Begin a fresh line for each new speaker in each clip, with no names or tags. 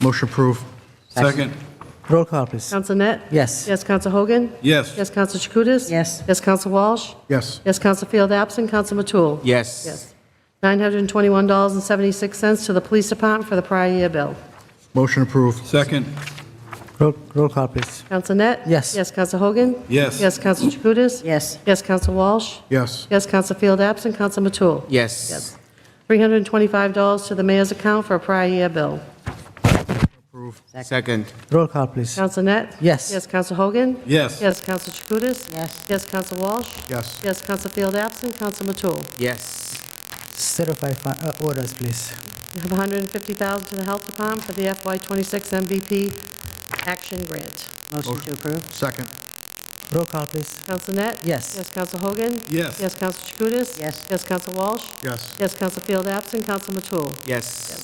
Motion approved.
Second.
Roll call, please.
Counsel Net?
Yes.
Yes, Counsel Hogan?
Yes.
Yes, Counsel Chakutis?
Yes.
Yes, Counsel Walsh?
Yes.
Yes, Counsel Field absent, Counsel Matul?
Yes.
Yes. $921.76 to the Police Department for the prior year bill.
Motion approved.
Second.
Roll roll call, please.
Counsel Net?
Yes.
Yes, Counsel Hogan?
Yes.
Yes, Counsel Chakutis?
Yes.
Yes, Counsel Walsh?
Yes.
Yes, Counsel Field absent, Counsel Matul?
Yes.
$325 to the mayor's account for a prior year bill.
Second.
Roll call, please.
Counsel Net?
Yes.
Yes, Counsel Hogan?
Yes.
Yes, Counsel Chakutis?
Yes.
Yes, Counsel Walsh?
Yes.
Yes, Counsel Field absent, Counsel Matul?
Yes.
Certify fi- uh, orders, please.
We have $150,000 to the Health Department for the FY26 MVP Action Grant.
Motion to approve?
Second.
Roll call, please.
Counsel Net?
Yes.
Yes, Counsel Hogan?
Yes.
Yes, Counsel Chakutis?
Yes.
Yes, Counsel Walsh?
Yes.
Yes, Counsel Field absent, Counsel Matul?
Yes.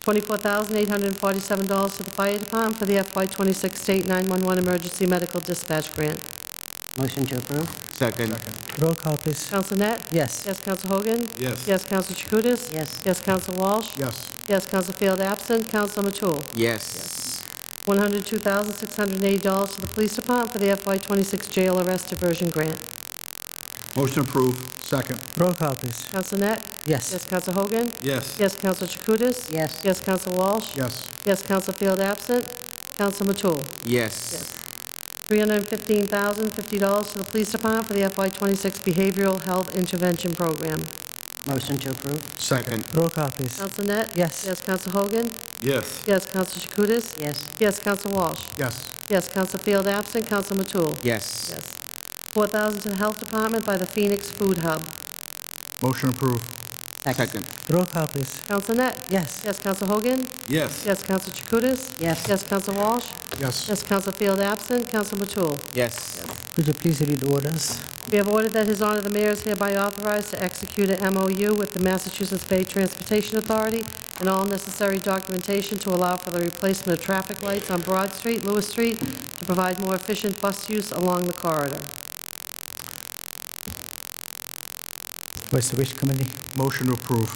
$24,847 to the Fire Department for the FY26 State 911 Emergency Medical Dispatch Grant.
Motion to approve?
Second.
Roll call, please.
Counsel
Um,
Net?
Yes.
Yes, Counsel Hogan?
Yes.
Yes, Counsel Chakutis?
Yes.
Yes, Counsel Walsh?
Yes.
Yes, Counsel Field absent, Counsel Matul?
Yes.
$102,680 to the Police Department for the FY26 Jail Arrest Diversion Grant.
Motion approved.
Second.
Roll call, please.
Counsel Net? Yes,
Yes.
Counsel Hogan?
Yes.
Yes, Counsel Chakutis?
Yes.
Yes, Counsel Walsh?
Yes.
Yes, Counsel Field absent, Counsel Matul?
Yes.
$315,050 to the Police Department for the FY26 Behavioral Health Intervention Program.
Motion to approve?
Second.
Roll call, please.
Counsel Net?
Um, Yes.
Yes, Counsel Hogan?
Yes.
Yes, Counsel Chakutis?
Yes.
Yes, Counsel Walsh?
Yes.
Yes, Counsel Field absent, Counsel Matul?
Yes.
Yes. 4,000 to the Health Department by the Phoenix Food Hub.
Motion approved.
Second.
Roll call, please.
Counsel Net?
Yes.
Yes, Counsel Hogan?
Yes.
Yes, Counsel Chakutis?
Yes.
Yes, Counsel Walsh?
Yes.
Yes, Counsel Field absent, Counsel Matul?
Yes.
Would you please read orders?
We have ordered that His Honor the Mayor is hereby authorized to execute an MOU with the Massachusetts Bay Transportation Authority and all necessary documentation to allow for the replacement of traffic lights on Broad Street, Lewis Street, to provide more efficient bus use along the corridor.
What's the wish committee?
Motion to approve.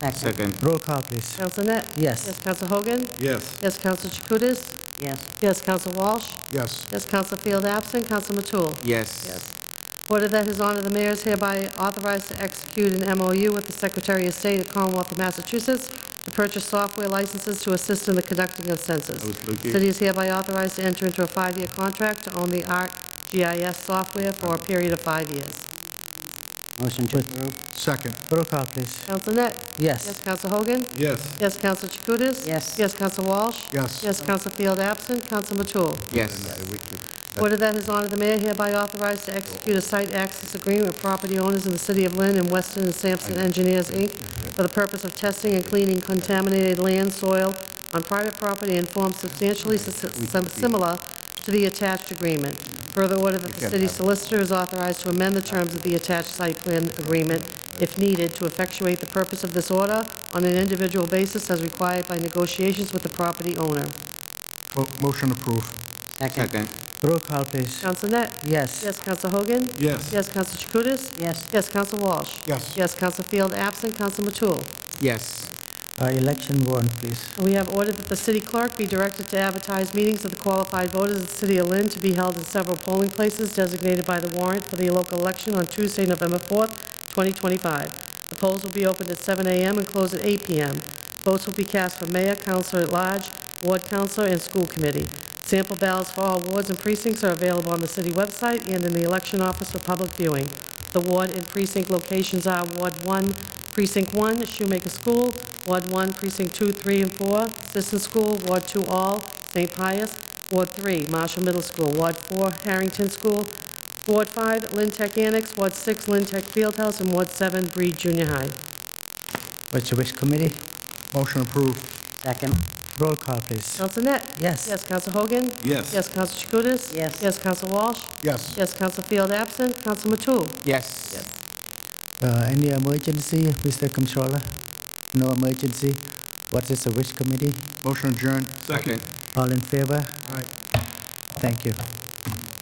Second?
Second.
Roll call, please.
Counsel Net?
Um, Yes.
Yes, Counsel Hogan?
Yes.
Yes, Counsel Chakutis?
Yes.
Yes, Counsel Walsh?
Yes.
Yes, Counsel Field absent, Counsel Matul?
Yes.
Order that His Honor the Mayor is hereby authorized to execute an MOU with the Secretary of State of Commonwealth of Massachusetts to purchase software licenses to assist in the conducting of census. City is hereby authorized to enter into a five-year contract to own the ArcGIS software for a period of five years.
Motion to approve?
Second.
Roll call, please.
Counsel Net? Yes,
Yes.
Counsel Hogan?
Yes.
Yes, Counsel Chakutis?
Yes.
Yes, Counsel Walsh?
Yes.
Yes, Counsel Field absent, Counsel Matul?
Yes.
Order that His Honor the Mayor hereby authorized to execute a site access agreement with property owners in the city of Lynn and Weston and Sampson Engineers, Inc., for the purpose of testing and cleaning contaminated land, soil on private property in form substantially sus- sim- similar to the attached agreement. Further order that the city solicitor is authorized to amend the terms of the attached site plan agreement, if needed, to effectuate the purpose of this order on an individual basis as required by negotiations with the property owner.
Mo- Motion approved.
Second?
Second.
Roll call, please.
Counsel Net?
Um, Yes.
Yes, Counsel Hogan?
Yes.
Yes, Counsel Chakutis?
Yes.
Yes, Counsel Walsh?
Yes.
Yes, Counsel Field absent, Counsel Matul.
Yes.
Uh, Election warrant, please.
We have ordered that the city clerk be directed to advertise meetings of the qualified voters of the city of Lynn to be held in several polling places designated by the warrant for the local election on Tuesday, November 4th, 2025. The polls will be opened at 7 a.m. and closed at 8 p.m. Votes will be cast for mayor, counselor at large, ward counselor, and school committee. Sample ballots for all wards and precincts are available on the city website and in the election office for public viewing. The ward and precinct locations are Ward 1, Precinct 1, Shoemaker School, Ward 1, Precinct 2, 3, and 4, Sisson School, Ward 2, All, St. Pius, Ward 3, Marshall Middle School, Ward 4, Harrington School, Ward 5, Lynn Tech Annex, Ward 6, Lynn Tech Fieldhouse, and Ward 7, Breed Junior High.
What's the wish committee?
Motion approved.
Second?
Roll call, please.
Counsel Net?
Um, Yes.
Yes, Counsel Hogan?
Yes.
Yes, Counsel Chakutis?
Yes.
Yes, Counsel Walsh?
Yes.
Yes, Counsel Field absent, Counsel Matul?
Yes.
Uh, Any emergency, Mr. Controller? No emergency? What is the wish committee?
Motion adjourned.
Second.
All in favor?
All right.
Thank you.